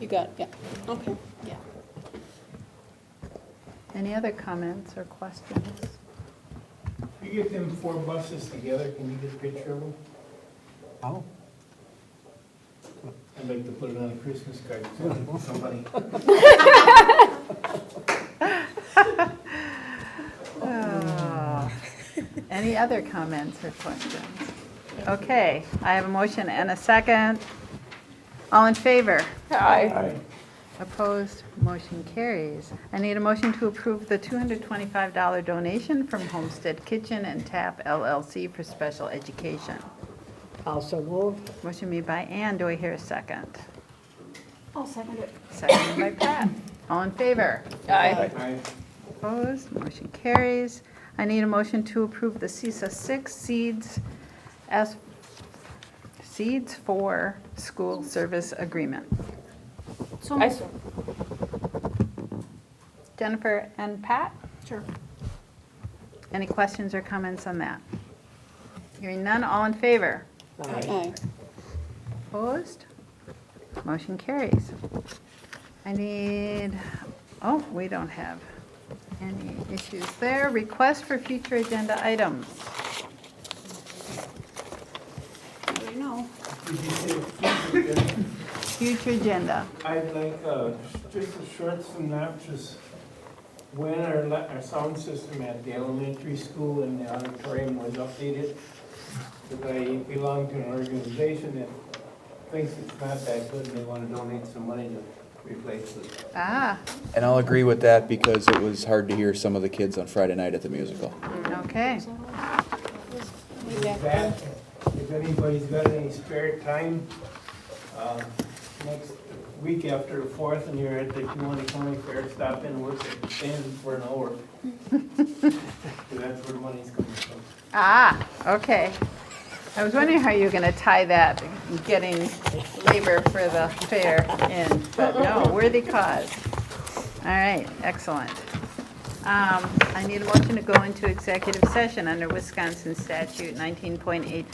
You got, yeah, okay, yeah. Any other comments or questions? You get them four buses together, can you get a picture of them? Oh, I'd like to put it on a Christmas card, so somebody. Oh. Any other comments or questions? Okay, I have a motion and a second. All in favor? Hi. Opposed? Motion carries. I need a motion to approve the $225 donation from Homestead Kitchen and Tap LLC for special education. also move. Motion made by Ann, do I hear a second? I'll second it. Second by Pat. All in favor? Aye. I Opposed, motion carries. I need a motion to approve the CISA 6 seeds as, seeds for school service agreement. So I moved. Jennifer and Pat, Sure. any questions or comments on that? Hearing none, all in favor? Aye. Opposed? Motion carries. I need, oh, we don't have any issues there. Request for future agenda items. I know. Did you say Christmas card? Future agenda. I'd like, uh, just a short synopsis. When our, la- our sound system at the elementary school and the auditorium was updated, because I belong to an organization that thinks it's not that good, and they wanna donate some money to replace it. Ah, And I'll agree with that because it was hard to hear some of the kids on Friday night at the musical. okay. Way back then. that, if anybody's got any spare time, uh, next week after the fourth and you're at the Kiwanee County Fair, stop in, look at stand for an hour. 'Cause That's where the money's coming from. Ah, okay. I was wondering how you were going to tie that, getting labor for the fair in, but no, worthy cause. All right, excellent. Um, I need a motion to go into executive session under Wisconsin statute 19.85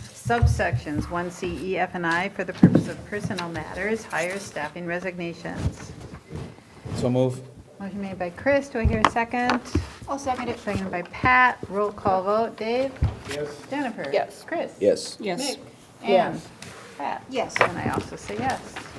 subsections 1C, E, F, and I for the purpose of personal matters, hires, staffing, resignations. So move. Motion made by Chris, do I hear a second? I'll second it. Seconded by Pat, roll call vote, Dave? Yes? Jennifer? Yes. Chris? Yes. Yes. Anne? Pat? Yes. And I also say yes.